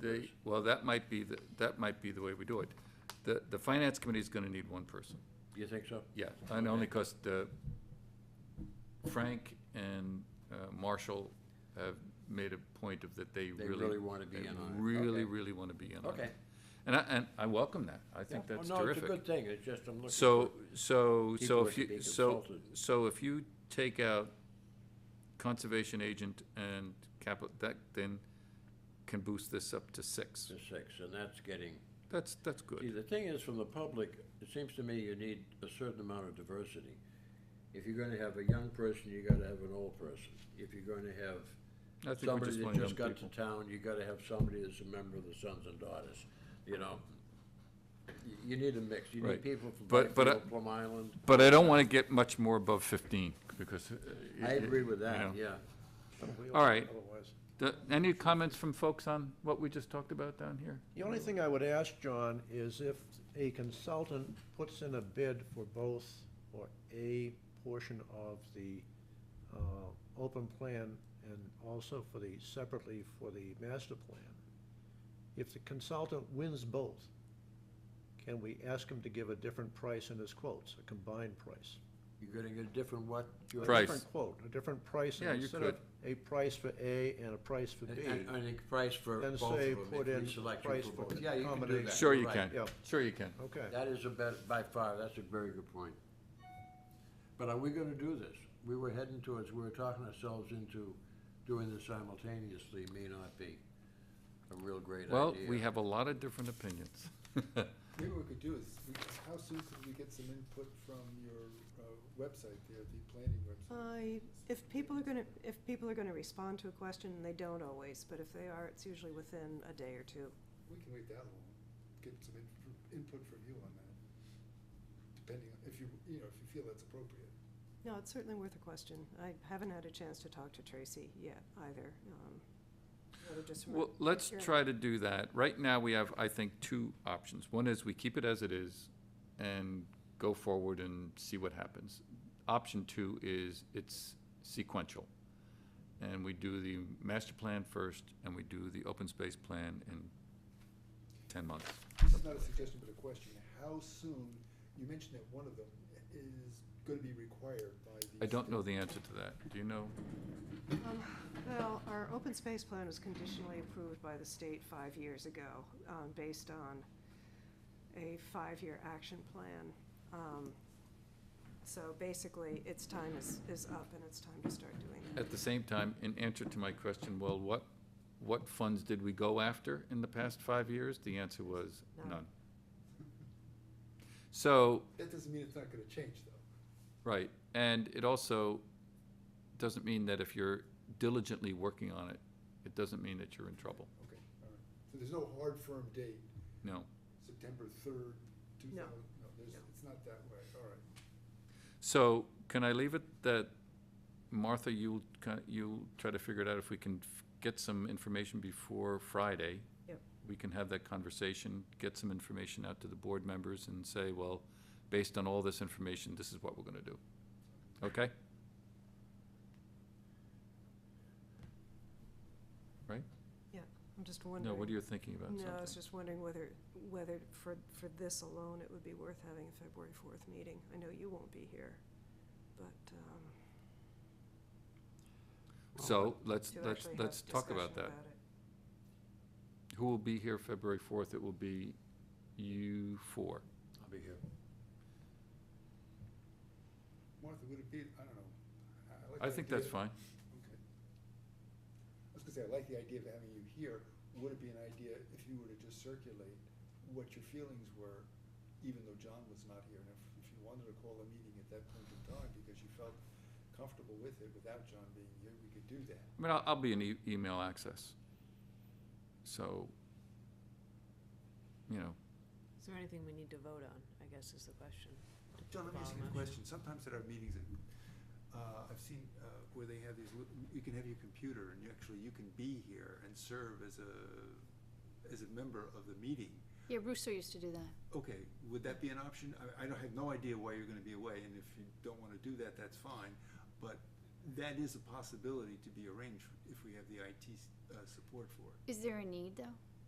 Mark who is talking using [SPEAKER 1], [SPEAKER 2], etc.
[SPEAKER 1] They, well, that might be, the that might be the way we do it. The, the finance committee's gonna need one person,
[SPEAKER 2] You think so?
[SPEAKER 1] yeah, and only because the, Frank and uh, Marshall have made a point of that they
[SPEAKER 2] They
[SPEAKER 1] really.
[SPEAKER 2] really wanna be
[SPEAKER 1] they
[SPEAKER 2] in on it.
[SPEAKER 1] Really,
[SPEAKER 2] Okay.
[SPEAKER 1] really wanna be in on it.
[SPEAKER 2] Okay.
[SPEAKER 1] And I, and I welcome that, I think
[SPEAKER 2] Yeah.
[SPEAKER 1] that's
[SPEAKER 2] Oh, No, it's a good
[SPEAKER 1] terrific.
[SPEAKER 2] thing, it's just I'm looking.
[SPEAKER 1] So,
[SPEAKER 2] for-
[SPEAKER 1] so,
[SPEAKER 2] People
[SPEAKER 1] so if
[SPEAKER 2] should be
[SPEAKER 1] you, so,
[SPEAKER 2] consulted.
[SPEAKER 1] so if you take out conservation agent and capital, that then can boost this up to six.
[SPEAKER 2] To six, and that's getting,
[SPEAKER 1] That's, that's
[SPEAKER 2] see,
[SPEAKER 1] good.
[SPEAKER 2] the thing is, from the public, it seems to me you need a certain amount of diversity. If you're gonna have a young person, you gotta have an old person. If you're gonna
[SPEAKER 1] I
[SPEAKER 2] have
[SPEAKER 1] think we
[SPEAKER 2] somebody
[SPEAKER 1] just
[SPEAKER 2] that
[SPEAKER 1] want
[SPEAKER 2] just
[SPEAKER 1] young
[SPEAKER 2] got to town, you gotta have somebody that's a member of the sons and daughters, you know? You, you need a mix, you
[SPEAKER 1] Right.
[SPEAKER 2] need people from
[SPEAKER 1] But- but I-
[SPEAKER 2] Blackfield, Plum Island.
[SPEAKER 1] But I don't want to get much more above fifteen because. uh,
[SPEAKER 2] I
[SPEAKER 1] it-
[SPEAKER 2] agree with
[SPEAKER 1] you know.
[SPEAKER 2] that, yeah.
[SPEAKER 1] All right.
[SPEAKER 3] Otherwise.
[SPEAKER 1] The- Any comments from folks on what we just talked about down here?
[SPEAKER 3] The only thing I would ask, John, is if a consultant puts in a bid for both or a portion of the uh, open plan and also for the, separately for the master plan, if the consultant wins both, can we ask him to give a different price in his quotes, a combined price?
[SPEAKER 2] You're gonna get a different what? George?
[SPEAKER 1] Price.
[SPEAKER 3] A different quote, a different price. and
[SPEAKER 1] Yeah, you
[SPEAKER 3] instead of
[SPEAKER 1] could.
[SPEAKER 3] A price for A and a price for
[SPEAKER 2] And,
[SPEAKER 3] B.
[SPEAKER 2] and and a price for
[SPEAKER 3] Then
[SPEAKER 2] both of
[SPEAKER 3] say
[SPEAKER 2] them,
[SPEAKER 3] put
[SPEAKER 2] if
[SPEAKER 3] in
[SPEAKER 2] we select
[SPEAKER 3] price
[SPEAKER 2] you
[SPEAKER 3] for
[SPEAKER 2] for both. Yeah, you can do that.
[SPEAKER 3] accommodation.
[SPEAKER 1] Sure you
[SPEAKER 2] Right.
[SPEAKER 1] can.
[SPEAKER 3] Yeah.
[SPEAKER 1] Sure you can.
[SPEAKER 3] Okay.
[SPEAKER 2] That is a bet, by far, that's a very good point. But are we gonna do this? We were heading towards, we were talking ourselves into doing this simultaneously, may not be a real great idea.
[SPEAKER 1] Well, we have a lot of different opinions.
[SPEAKER 4] Maybe what we could do is, we- how soon could we get some input from your uh, website there, the planning website?
[SPEAKER 5] I, Uh, if people are gonna, if people are gonna respond to a question, and they don't always, but if they are, it's usually within a day or two.
[SPEAKER 4] We can wait that long, get some in- input from you on that, depending, on if you, you know, if you feel that's appropriate.
[SPEAKER 5] No, it's certainly worth a question. I haven't had a chance to talk to Tracy yet either. um, I would just re-
[SPEAKER 1] Well, let's
[SPEAKER 5] Yeah.
[SPEAKER 1] try to do that. Right now, we have, I think, two options. One is we keep it as it is and go forward and see what happens. Option two is it's sequential. And we do the master plan first and we do the open space plan in ten months.
[SPEAKER 4] This is not a suggestion, but a question, how soon, you mentioned that one of them is gonna be required by the.
[SPEAKER 1] I don't know
[SPEAKER 4] state.
[SPEAKER 1] the answer to that. Do you know?
[SPEAKER 5] Um, Well, our open space plan was conditionally approved by the state five years ago, um, based on a five-year action plan. Um, So basically, its time is, is up and it's time to start doing that.
[SPEAKER 1] At the same time, in answer to my question, well, what, what funds did we go after in the past five years? The answer was
[SPEAKER 5] None.
[SPEAKER 1] none. So,
[SPEAKER 4] That doesn't mean it's not gonna change, though.
[SPEAKER 1] right, and it also doesn't mean that if you're diligently working on it, it doesn't mean that you're in trouble,
[SPEAKER 4] Okay, all right. So there's no hard firm date,
[SPEAKER 1] no.
[SPEAKER 4] September third, two
[SPEAKER 5] No.
[SPEAKER 4] thousand, no, there's,
[SPEAKER 5] No.
[SPEAKER 4] it's not that way, all right.
[SPEAKER 1] So, can I leave it that, Martha, you'll, ki- you'll try to figure it out if we can f- get some information before Friday?
[SPEAKER 5] Yep.
[SPEAKER 1] We can have that conversation, get some information out to the board members and say, well, based on all this information, this is what we're gonna do. Okay?
[SPEAKER 5] I'm just wondering.
[SPEAKER 1] No, what are you thinking about
[SPEAKER 5] No, I was
[SPEAKER 1] something?
[SPEAKER 5] just wondering whether, whether for, for this alone, it would be worth having a February fourth meeting. I know you won't be here, but, um,
[SPEAKER 1] So, let's,
[SPEAKER 5] to
[SPEAKER 1] let's,
[SPEAKER 5] actually have
[SPEAKER 1] let's talk
[SPEAKER 5] discussion
[SPEAKER 1] about that. Who will be here February fourth? It will be you four.
[SPEAKER 2] I'll be here.
[SPEAKER 4] Martha, would it be, I don't know. I- like
[SPEAKER 1] I
[SPEAKER 4] the
[SPEAKER 1] think
[SPEAKER 4] idea-
[SPEAKER 1] that's fine.
[SPEAKER 4] Okay. I was gonna say, I like the idea of having you here. Would it be an idea if you were to just circulate what your feelings were, even though John was not here? And if, if you wanted to call a meeting at that point in time because you felt comfortable with it without John being here, we could do that.
[SPEAKER 1] I mean, I'll, I'll be in e- email access. So, you know,
[SPEAKER 6] Is there anything we need to vote on, I guess is the question.
[SPEAKER 4] John, let me ask you a
[SPEAKER 6] Bottom up.
[SPEAKER 4] question. Sometimes at our meetings, uh, I've seen, uh, where they have these, lit- you can have your computer and you actually, you can be here and serve as a, as a member of the meeting.
[SPEAKER 7] Yeah, Rooster used to do that.
[SPEAKER 4] Okay, would that be an option? I, I don't, have no idea why you're gonna be away, and if you don't wanna do that, that's fine, but that is a possibility to be arranged if we have the IT, s- uh, support for it.
[SPEAKER 7] Is there a need, though?